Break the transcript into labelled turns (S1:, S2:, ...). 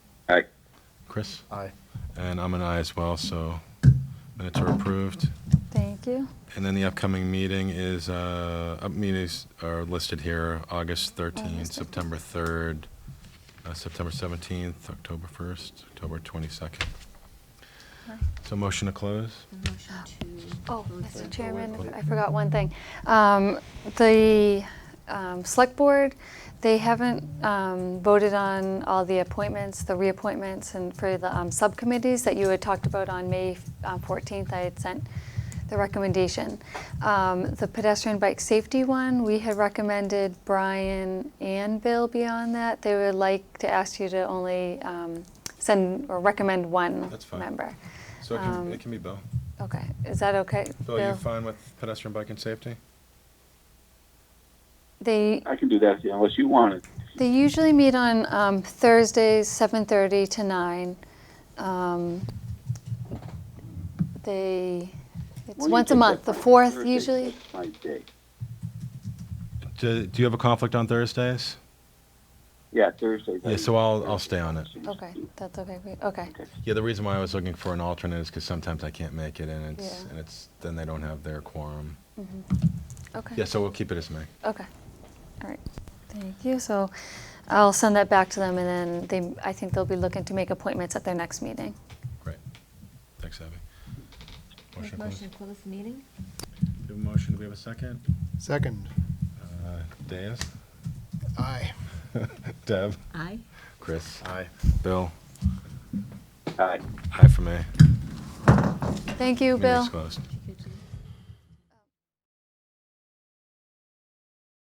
S1: Aye.
S2: Chris?
S3: Aye.
S2: And I'm an aye as well, so minutes are approved.
S4: Thank you.
S2: And then the upcoming meeting is, uh, up meetings are listed here, August 13th,
S4: August 13th.
S2: September 3rd, uh, September 17th, October 1st, October 22nd.
S4: Aye.
S2: So motion to close?
S4: Oh, Mr. Chairman,
S2: board.
S4: I forgot one thing. Um, The um, Select Board, they haven't um, voted on all the appointments, the reappointments, and for the um, subcommittees that you had talked about on May uh, 14th, I had sent the recommendation. Um, The pedestrian bike safety one, we had recommended Brian and Bill be on that. They would like to ask you to only um, send or recommend one
S2: That's fine.
S4: member.
S2: So it can,
S4: Um,
S2: it can be Bill.
S4: Okay, is that okay?
S2: Bill, you fine with pedestrian bike and safety?
S4: They,
S1: I can do that yeah, unless you want it.
S4: they usually meet on um, Thursdays, 7:30 to 9. Um, They,
S1: When
S4: it's
S1: do you
S4: once a
S1: think
S4: month, the
S1: that's my-
S4: 4th
S1: Thursday,
S4: usually.
S1: that's My day.
S2: Do, do you have a conflict on Thursdays?
S1: Yeah, Thursday.
S2: Yeah, so I'll, I'll stay on it.
S4: Okay, that's okay, for you. okay,
S2: Yeah, the reason why I was looking for an alternate is because sometimes I can't make it and it's,
S4: Yeah.
S2: and it's, then they don't have their quorum.
S4: mm-hmm. okay.
S2: Yeah, so we'll keep it as May.
S4: Okay, all right, thank you. So I'll send that back to them and then they, I think they'll be looking to make appointments at their next meeting.
S2: Great. Thanks, Abby. Motion to close.
S5: Motion to close the meeting?
S2: We have a motion, do we have a second?
S3: Second.
S2: Uh, Daz?
S3: Aye.
S2: Deb?
S5: Aye.
S2: Chris?
S3: Aye.
S2: Bill?
S1: Aye.
S2: Aye for me.
S4: Thank you, Bill.
S2: Meeting's closed.